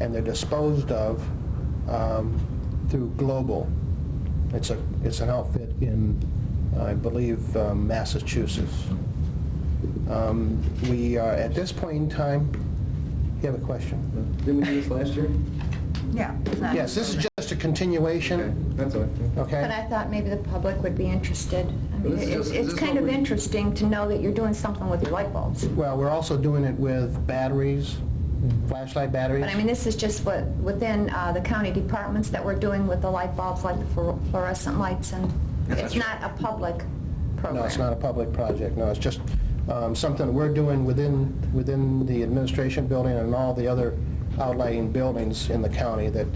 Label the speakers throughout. Speaker 1: and they're disposed of um, through Global. It's a, it's an outfit in, I believe, um, Massachusetts. Um, We are, at this point in time, you have a question?
Speaker 2: Didn't we do this last year?
Speaker 3: Yeah. it's not-
Speaker 1: Yes, this is just a
Speaker 2: Okay,
Speaker 1: continuation,
Speaker 2: that's all. right.
Speaker 4: But
Speaker 1: okay?
Speaker 4: I thought maybe the public would be interested. I mean,
Speaker 2: This is
Speaker 4: It's
Speaker 2: just-
Speaker 4: it's
Speaker 2: this is
Speaker 4: kind
Speaker 2: what
Speaker 4: of
Speaker 2: we-
Speaker 4: interesting to know that you're doing something with your light bulbs.
Speaker 1: Well, we're also doing it with batteries, flashlight batteries.
Speaker 4: But I mean, this is just what, within uh, the county departments that we're doing with the light bulbs, like the fluor- fluorescent lights, and it's not a public program.
Speaker 1: No, it's not a public project, no, it's just um, something that we're doing within, within the administration building and all the other outlying buildings in the county that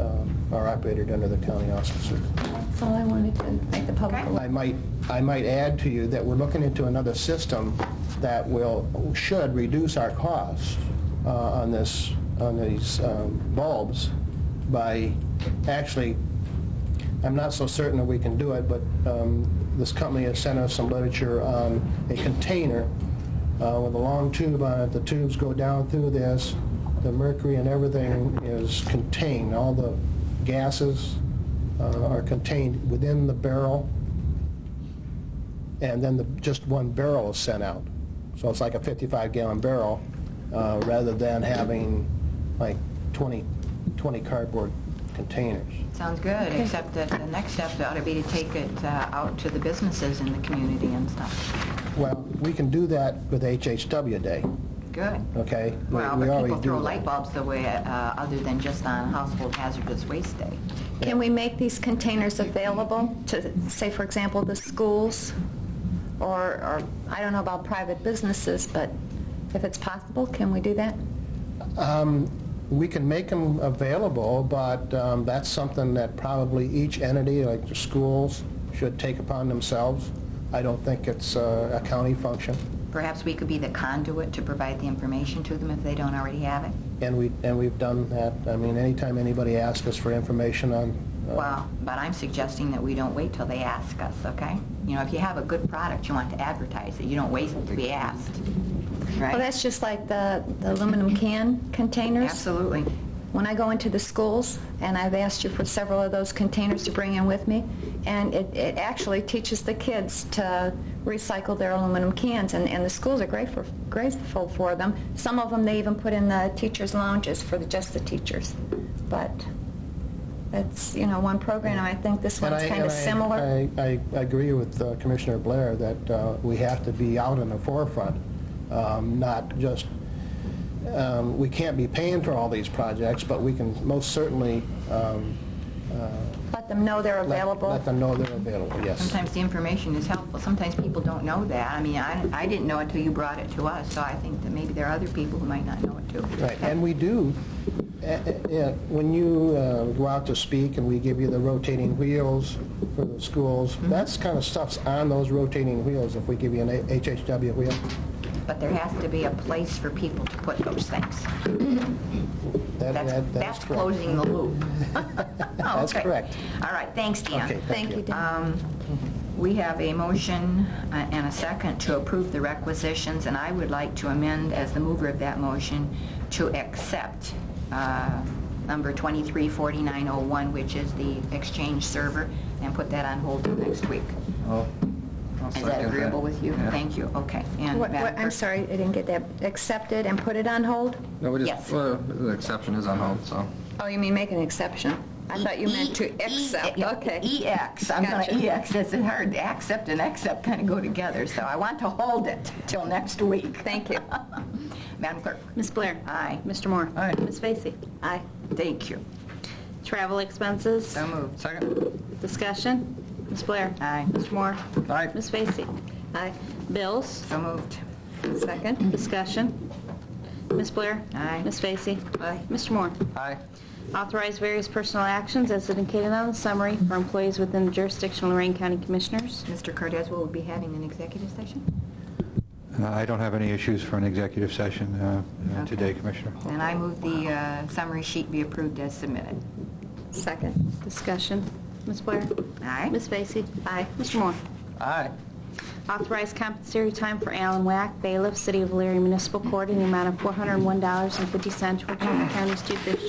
Speaker 1: um, are operated under the county auspices.
Speaker 4: That's all I wanted to make the public
Speaker 3: Okay.
Speaker 4: aware.
Speaker 1: I might, I might add to you that we're looking into another system that will, should reduce our costs uh, on this, on these um, bulbs by, actually, I'm not so certain that we can do it, but um, this company has sent us some literature on a container uh, with a long tube on it. The tubes go down through this, the mercury and everything is contained, all the gases uh, are contained within the barrel and then the, just one barrel is sent out. So it's like a 55-gallon barrel, uh, rather than having like 20, 20 cardboard containers.
Speaker 5: Sounds good, except that the next step ought to be to take it uh, out to the businesses in the community and stuff.
Speaker 1: Well, we can do that with HHW Day,
Speaker 5: Good.
Speaker 1: okay? We-
Speaker 5: Well,
Speaker 1: we
Speaker 5: but
Speaker 1: already
Speaker 5: people throw
Speaker 1: do that.
Speaker 5: light bulbs away, uh, other than just on household hazardous waste day.
Speaker 4: Can we make these containers available to, say, for example, the schools? Or, or, I don't know about private businesses, but if it's possible, can we do that?
Speaker 1: Um, We can make them available, but um, that's something that probably each entity, like the schools, should take upon themselves. I don't think it's uh, a county function,
Speaker 5: Perhaps we could be the conduit to provide the information to them if they don't already have it.
Speaker 1: and we, and we've done that. I mean, anytime anybody asks us for information on uh,
Speaker 5: Well, but I'm suggesting that we don't wait till they ask us, okay? You know, if you have a good product, you want to advertise it, you don't wait to be asked,
Speaker 4: Well,
Speaker 5: right?
Speaker 4: Oh, that's just like the the aluminum can containers.
Speaker 5: Absolutely.
Speaker 4: When I go into the schools, and I've asked you for several of those containers to bring in with me, and it it actually teaches the kids to recycle their aluminum cans, and and the schools are grateful grateful for them. Some of them, they even put in the teachers' lounges for the- just the teachers. But that's, you know, one program, I think this
Speaker 1: And
Speaker 4: one's
Speaker 1: I-
Speaker 4: kind of
Speaker 1: and I-
Speaker 4: similar.
Speaker 1: I, I agree with uh, Commissioner Blair that uh, we have to be out in the forefront, um, not just, um, we can't be paying for all these projects, but we can most certainly um,
Speaker 4: Let them know they're
Speaker 1: let
Speaker 4: available.
Speaker 1: let them know they're available, yes.
Speaker 5: Sometimes the information is helpful. Sometimes people don't know that. I mean, I, I didn't know it till you brought it to us, so I think that maybe there are other people who might not know it too.
Speaker 1: Right, and we do, eh, eh, eh, when you uh, go out to speak and we give you the rotating wheels for the schools,
Speaker 5: Mm-hmm.
Speaker 1: that's kind of stuff's on those rotating wheels if we give you an HHW wheel.
Speaker 5: But there has to be a place for people to put those things.
Speaker 1: That-
Speaker 5: That's,
Speaker 1: that- that is
Speaker 5: that's
Speaker 1: correct.
Speaker 5: closing Oh, the loop.
Speaker 1: That's correct.
Speaker 5: All right, thanks,
Speaker 1: Okay,
Speaker 5: Dan. Um,
Speaker 4: Thank you, Dan.
Speaker 5: We have a motion uh, and a second to approve the requisitions, and I would like to amend as the mover of that motion to accept uh, number 234901, which is the exchange server, and put that on hold till next week.
Speaker 2: I'll- I'll
Speaker 5: Is
Speaker 2: second
Speaker 5: that agreeable with you?
Speaker 2: Yeah.
Speaker 5: Thank you, okay. And
Speaker 4: What-
Speaker 5: Madam
Speaker 4: what- I'm
Speaker 5: Clerk?
Speaker 4: sorry, I didn't get that. Accepted and put it on hold?
Speaker 2: No, we
Speaker 5: Yes.
Speaker 2: just, well, the exception is on hold, so.
Speaker 4: Oh, you mean make an exception? I thought you meant to accept,
Speaker 5: E-
Speaker 4: okay.
Speaker 5: EX, I'm going
Speaker 4: Gotcha.
Speaker 5: to EX, it's hard, accept and accept kind of go together, so I want to hold it till next week.
Speaker 4: Thank you.
Speaker 5: Madam Clerk?
Speaker 6: Ms. Blair?
Speaker 5: Aye.
Speaker 6: Mr. Moore?
Speaker 2: Aye.
Speaker 6: Ms. Vacy?
Speaker 4: Aye.
Speaker 5: Thank you.
Speaker 6: Travel expenses?
Speaker 5: So moved.
Speaker 2: Second.
Speaker 6: Discussion? Ms. Blair?
Speaker 5: Aye.
Speaker 6: Mr. Moore?
Speaker 2: Aye.
Speaker 6: Ms. Vacy?
Speaker 4: Aye.
Speaker 6: Bills?
Speaker 5: So moved.
Speaker 4: Second?
Speaker 6: Discussion? Ms. Blair?
Speaker 5: Aye.
Speaker 6: Ms. Vacy?
Speaker 4: Aye.
Speaker 6: Mr. Moore?
Speaker 2: Aye.
Speaker 6: Authorize various personal actions as indicated on the summary for employees within the jurisdiction of Lorraine County Commissioners.
Speaker 5: Mr. Cardezza will be having an executive session,
Speaker 7: Uh, I don't have any issues for an executive session uh, uh,
Speaker 5: Okay.
Speaker 7: today, Commissioner.
Speaker 5: and I move the uh, summary sheet be approved as submitted.
Speaker 4: Second.
Speaker 6: Discussion? Ms. Blair?
Speaker 5: Aye.
Speaker 6: Ms. Vacy? Aye. Mr. Moore?
Speaker 2: Aye.
Speaker 6: Authorize compensatory time for Alan Wack, bailiff, City of Leary Municipal Court, in the amount of $401.50 for Jefferson County Student